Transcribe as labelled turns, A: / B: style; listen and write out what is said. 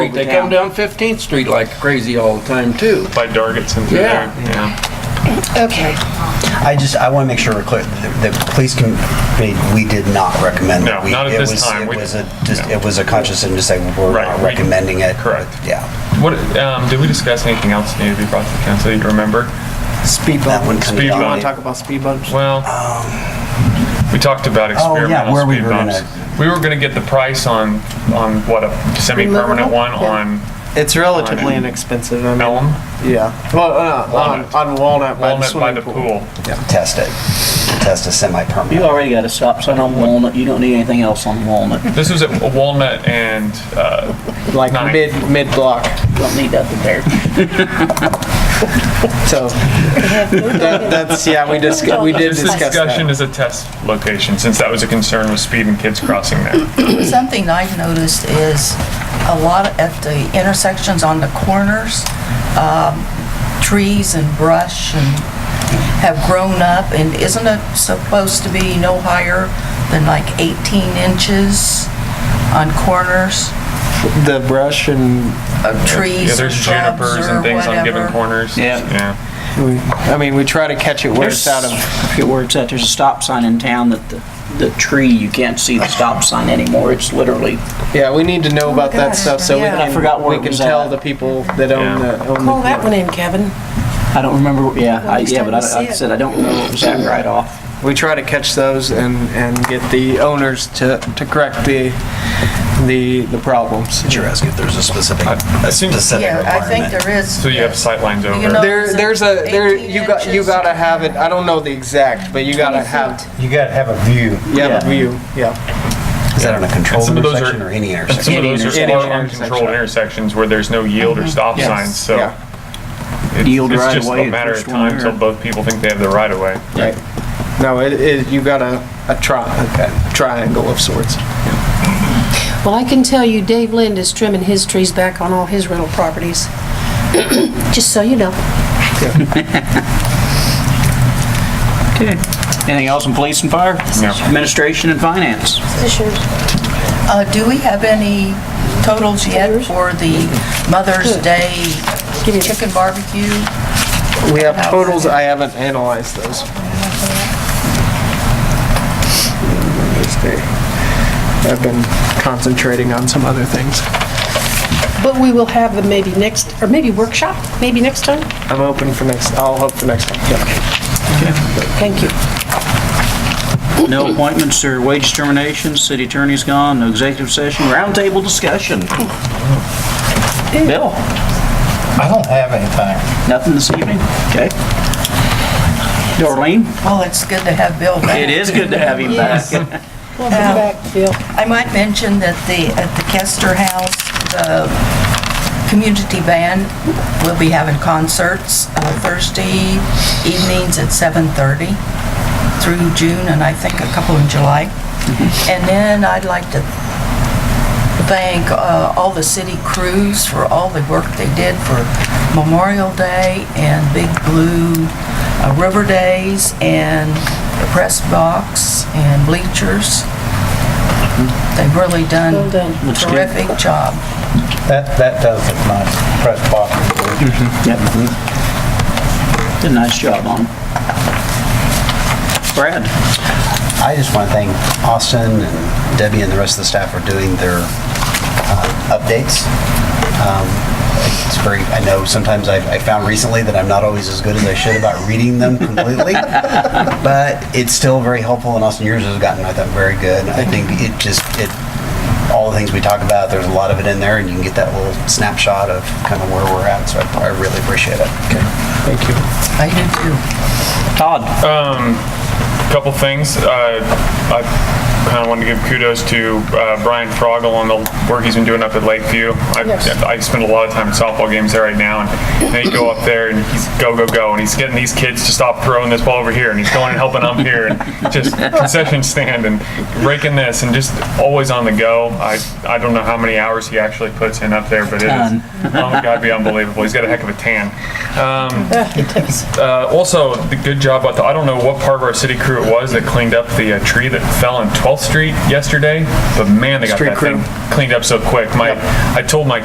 A: They come down 15th Street like crazy all the time, too.
B: by Dargetson through
A: Yeah.
B: there. Yeah.
C: Okay.
D: I just, I want to make sure we're clear, the the police can, we- we did not recommend.
B: No,
D: it. We-
B: not at
D: it
B: this
D: was-
B: time. We-
D: It was a, just,
B: no.
D: it was a conscious and just like, we're
B: Right,
D: not
B: we-
D: recommending it.
B: correct.
D: Yeah.
B: What um, did we discuss anything else that needed to be brought to the council? that You remember?
E: Speed
D: That one
E: bump.
D: comes
B: Speed
E: You
D: down.
E: want to talk about speed bumps?
B: Well, we talked about
D: Oh,
B: experimental
D: yeah, where we
B: speed
D: were gonna-
B: bumps. We were going to get the price on on what a semi-permanent
C: Removable?
B: one
C: Yeah.
E: It's relatively inexpensive. I
B: on
E: mean,
B: Elm
E: Yeah. Well, uh,
B: Walnut.
E: On, on Walnut, by
B: Walnut
E: the
B: by
E: swimming
B: the
E: pool.
B: pool.
D: Test it. Test a
F: You
D: semi-permanent.
F: already got a stop sign on Walnut, you don't need anything else on Walnut.
B: This was at Walnut and uh,
E: Like
B: Nine.
E: mid mid block.
F: You Don't need that in there.
E: So that, that's yeah. We just we did
B: this
E: discuss
B: discussion
E: that.
B: is a test location since that was a concern with speed and kids crossing there.
G: Something I've noticed is a lot at the intersections on the corners, um, trees and brush and have grown up, and isn't it supposed to be no higher than like 18 inches on corners
E: The brush and
G: of
B: Yeah,
G: trees or
B: there's
G: shrubs or
B: junipers and things on given
G: whatever?
B: corners.
F: Yeah.
E: we, I mean we try to catch it where it's out of.
F: I forget where it's at, there's a stop sign in town that the, the tree, you can't see the stop sign anymore, it's literally,
E: Yeah, we need to
F: Oh
E: know about that stuff so we
C: yeah.
E: can
F: I forgot where
E: we
F: it
E: can
F: was
E: tell
F: at.
E: the people that own
B: Yeah.
E: the own
C: Call
E: the,
C: that one in, Kevin.
F: I don't remember, what- yeah, I,
C: Next
F: yeah,
C: time
F: but I,
C: you see
F: like I
C: it.
F: said, I don't remember what was that right off.
E: We try to catch those and and get the owners to to correct the the the problems.
D: Did you ask if there's a specific,
B: I- I
D: a
B: assume-
D: specific
G: Yeah, I think
D: requirement?
G: there is.
B: So you have sight lines over.
G: know-
E: There, there's a there.
G: 18
E: You got you
G: inches.
E: gotta have it. I don't know the exact, but you gotta have
D: You gotta have a view.
E: yeah,
F: Yeah.
E: the view. Yeah,
D: Is that on a controlled
B: some of those
D: intersection
B: are-
D: or any
B: And some
D: intersection?
B: of
F: Any
B: those are
E: intersection.
B: small uncontrolled intersections where there's no yield or stop
E: Yes.
B: signs, so.
E: Yeah.
B: it's-
F: Yield right
B: It's just
F: away
B: a
F: at
B: matter of
F: first
B: time
F: one
B: until
F: there.
B: both people think they have the right of way.
E: right. No, it, it you got a a tri- a triangle of sorts.
C: Well, I can tell you Dave Lind is trimming his trees back on all his rental properties. Just so you know.
F: Okay. Anything else in police and fire?
B: No.
F: Administration and finance?
G: Uh, Do we have any totals yet for the Mother's Day chicken barbecue?
E: We have totals. I haven't analyzed those. Let's see. I've been concentrating on some other things.
C: But we will have them maybe next, or maybe workshop, maybe next time?
E: I'm open for next. I'll hope for next time. Yeah.
C: Thank you.
F: No appointments or wage terminations, city attorney's gone, no executive session, roundtable discussion. Bill?
H: I don't have anything.
F: Nothing this evening? Okay. Darlene?
G: Well, it's good to have Bill back.
F: It is good to have you back.
C: Welcome back, Bill.
G: I might mention that the, at the Kester House, the community band will be having concerts uh, Thursday evenings at 7:30 through June, and I think a couple in July.
C: Mm-hmm.
G: And then I'd like to thank uh, all the city crews for all the work they did for Memorial Day and Big Blue uh, River Days and the press box and bleachers. They've really done
C: Mm-hmm. Well done.
F: Looks good.
G: terrific job.
H: That, that does look nice, press box.
F: Yep. Did a nice job on. it. Brad?
D: I just want to thank Austin and Debbie and the rest of the staff for doing their uh, updates. Um, It's very, I know sometimes I've I found recently that I'm not always as good as I should about reading them completely, but it's still very helpful, and Austin, yours has gotten, I thought, very good. I think it just, it, all the things we talk about, there's a lot of it in there, and you can get that little snapshot of kind of where we're at, so I I really appreciate it.
E: Thank you.
G: I do too.
F: Todd?
B: Couple things, uh, I kinda wanted to give kudos to, uh, Brian Froggle on the work he's been doing up at Lakeview. I, I spend a lot of time at softball games there right now, and they go up there and he's go, go, go, and he's getting these kids to stop throwing this ball over here, and he's going and helping up here, and just concession stand and breaking this, and just always on the go. I, I don't know how many hours he actually puts in up there, but it
F: Ton.
B: is, oh my god, it'd be unbelievable. He's got a heck of a tan. Um, uh, also, the good job about the, I don't know what part of our city crew it was that cleaned up the uh, tree that fell on 12th Street yesterday, but man, they got
E: Street
B: that
E: crew.
B: thing cleaned up so quick. My, I told my